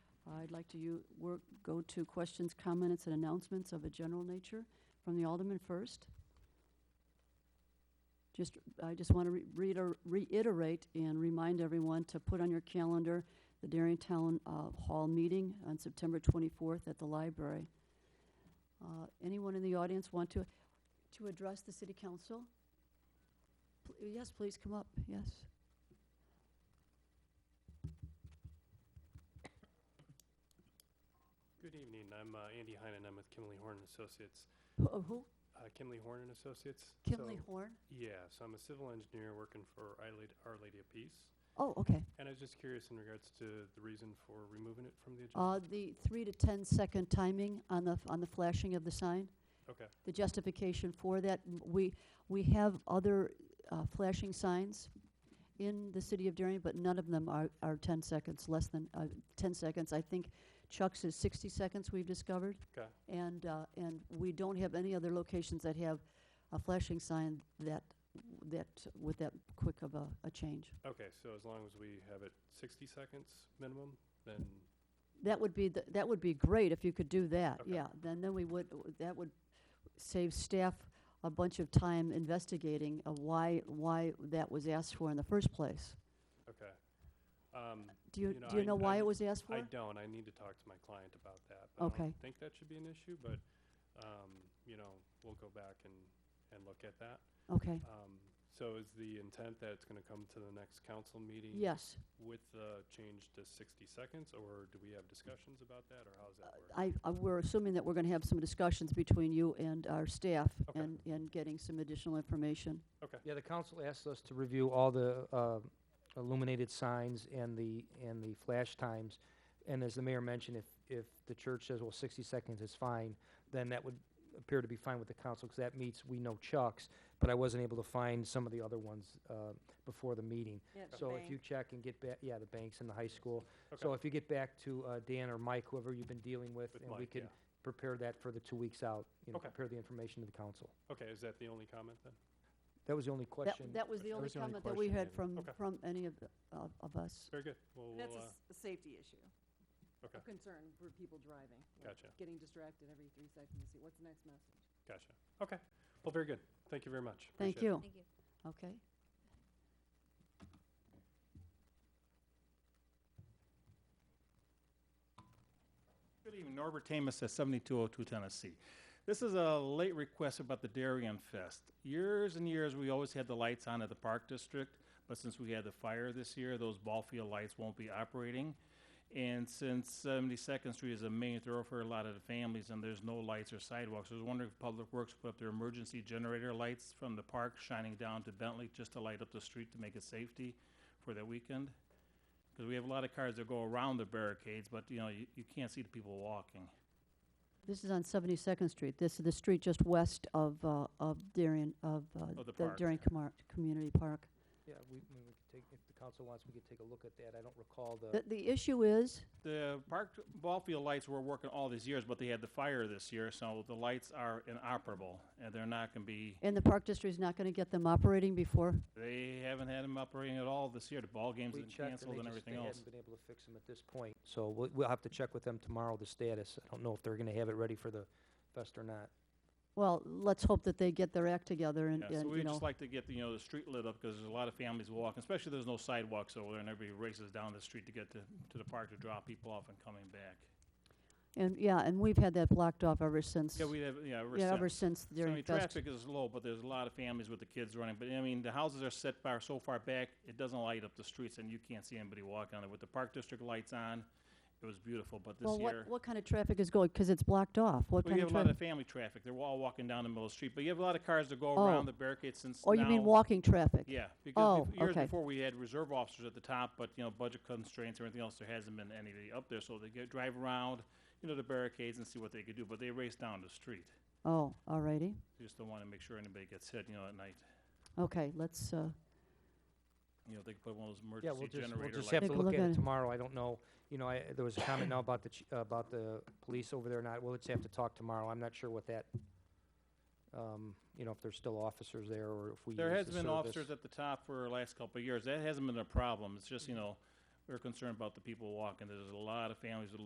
I'd like to you, work, go to questions, comments, and announcements of a general nature from the Alderman first. Just, I just want to reiterate and remind everyone to put on your calendar the Darien uh, Hall meeting on September 24th at the library. Uh, Anyone in the audience want to, to address the city council? Pl- Yes, please come up, yes. Good evening. I'm uh, Andy Heinen. I'm with Kimley Horn and Associates. Who- uh, Who? Uh, Kimley Horn and Associates. Kinley So- Horn? Yeah, so I'm a civil engineer working for Our Lady- Our Lady of Peace. Oh, okay. And I was just curious in regards to the reason for removing it from the agenda. Uh, The three to ten-second timing on the, on the flashing of the sign, Okay, the justification for that, m- we, we have other uh, flashing signs in the city of Darien, but none of them are, are ten seconds, less than, uh, ten seconds. I think Chuck's is sixty seconds, we've discovered. okay, And, uh, and we don't have any other locations that have a flashing sign that, that, with that quick of a, a change. okay. So as long as we have it 60 seconds minimum, then, That would be, the- that would be great if you could do that, Okay. yeah. Then, then we would, that would save staff a bunch of time investigating of why, why that was asked for in the first place. okay. Um, Do you, You know, do you I- know why it I'm- was asked I for? don't, I need to talk to my client about that. but I Okay. don't think that should be an issue, but, um, you know, we'll go back and, and look at that. Okay, Um, So is the intent that it's going to come to the next council meeting? yes. With the change to 60 seconds, or do we have discussions about that, or how's that work? Uh, I, I- we're assuming that we're gonna have some discussions between you and our staff Okay. and, and getting some additional information. Yeah, the council asked us to review all the uh, illuminated signs and the, and the flash times. And as the mayor mentioned, if, if the church says, well, 60 seconds is fine, then that would appear to be fine with the council, because that meets, we know Chuck's, but I wasn't able to find some of the other ones uh, before the meeting. So if you check and get back, yeah, the banks and the high school. So Okay. if you get back to uh, Dan or Mike, whoever you've been dealing with, With and we Mike, can prepare that for the two weeks out, you know, Okay. prepare the information to the council. yeah. Okay, is that the only comment then? That was the only That, question. that was the that only was the only comment that we question, had yeah. from, Okay. from any of, the- of- of us. Very good. Well, That's we'll, a, uh, s- a safety issue. Okay. A concern for people driving. like Gotcha. Getting distracted every three seconds, see, what's the next message? gotcha. Okay. Well, very good. Thank you very much. Thank Appreciate it. you. Thank you. Okay. Good evening, Norbert Tamus at 7202 Tennessee. This is a late request about the Darien Fest. Years and years, we always had the lights on at the Park District, but since we had the fire this year, those ball field lights won't be operating. And since 72nd Street is a main thoroughfare for a lot of the families, and there's no lights or sidewalks, I was wondering if Public Works put up their emergency generator lights from the park shining down to Bentley just to light up the street to make it safety for that weekend? Because we have a lot of cars that go around the barricades, but you know, you, you can't see the people walking. This is on 72nd Street. This is the street just west of, uh, of Darien, of uh, Of the the park. Darien Comar- Community Park. Yeah, we, we could take, if the council wants, we could take a look at that. I don't recall The, the, the issue is, The park ball field lights were working all these years, but they had the fire this year, so the lights are inoperable and they're not going to be. and the Park District's not going to get them operating before, They havenn't had them operating at all this year. The ball games we have been checked and canceled they and just, they everything else. hadn't been able to fix them at this point. So we'll, we'll have to check with them tomorrow, the status. I don't know if they're gonna have it ready for the fest or not. well, let's hope that they get their act together and, Yeah, so and, you we'd know. just like to get the, you know the street lit up because there's a lot of families walking, especially there's no sidewalks over there, and everybody races down the street to get to, to the park to drop people off and coming back. And, yeah, and we've had that blocked off ever since, Yeah, we have yeah. ever yeah, ever since. since So, I Darien mean, Fest. Traffic is low, but there's a lot of families with the kids running, but I mean, the houses are set far, so far back, it doesn't light up the streets and you can't see anybody walking on it. With the park district lights on, it was beautiful, but this Well, what, year. what kind of traffic is going, because it's blocked off? What Well, kind you of have a lot traffic? of family traffic, they're all walking down the middle of the street, but you have a lot of cars that go Oh. around the barricades since now. Oh, you mean walking traffic? Yeah, because Oh, bef- years okay. before, we had reserve officers at the top, but, you know, budget constraints or anything else, there hasn't been anybody up there, so they get, drive around, you know, the barricades and see what they could do, but they race down the street. Oh, all righty. They Just don't wanna make sure anybody gets hit, you know, at night. Okay, let's, uh, You know, they could put one of those Yeah, we'll emergency just, we'll generator just lights. have Take to a look look at at it. it tomorrow. I don't know, you know, I, there was a comment now about the, ch- about the police over there, not, we'll just have to talk tomorrow. I'm not sure what that, um, you know, if there's still officers there or if we use There has the been service. officers at the top for the last couple Mm-hmm. of years. That hasn't been a problem. It's just, you know, we're concerned about the people walking. There's a lot of families with